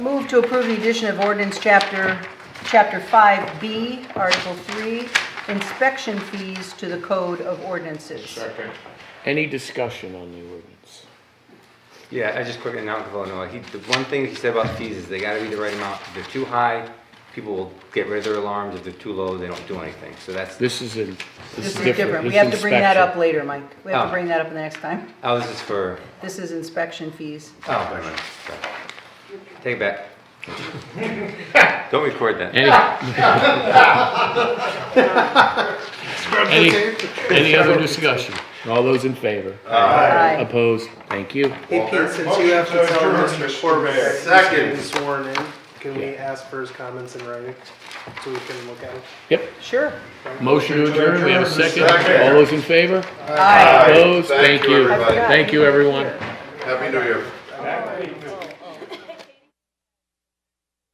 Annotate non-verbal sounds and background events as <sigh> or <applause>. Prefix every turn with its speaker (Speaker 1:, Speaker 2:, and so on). Speaker 1: Move to approve the addition of ordinance chapter, chapter 5B, article 3, inspection fees to the code of ordinances.
Speaker 2: Second.
Speaker 3: Any discussion on the ordinance?
Speaker 2: Yeah, I just quickly, now Illinois, he, the one thing he said about fees is they gotta be the right amount. If they're too high, people will get rid of their alarms. If they're too low, they don't do anything. So that's,
Speaker 3: This is in,
Speaker 1: This
Speaker 3: this
Speaker 1: is different, we have to bring that up later, Mike. We have to
Speaker 2: Oh.
Speaker 1: bring that up the next time.
Speaker 2: I was just oh, for,
Speaker 1: This is inspection fees.
Speaker 2: oh, wait a minute. Sorry. Take it back. <laughs> Don't record that.
Speaker 3: Any, any, any other discussion? All those in favor?
Speaker 1: Aye.
Speaker 3: Opposed? Thank you.
Speaker 4: Hey Pete, since you have to tell Mr. Corbett he's getting sworn in, can we ask for his comments in writing so we can look at it?
Speaker 3: Yep.
Speaker 1: Sure.
Speaker 3: Motion to adjourn, we have a second.
Speaker 5: Second.
Speaker 3: All those in favor?
Speaker 1: Aye.
Speaker 3: Opposed?
Speaker 5: Thank
Speaker 3: Thank
Speaker 5: you,
Speaker 3: you.
Speaker 5: everybody.
Speaker 3: Thank you, everyone.
Speaker 5: Happy New Year.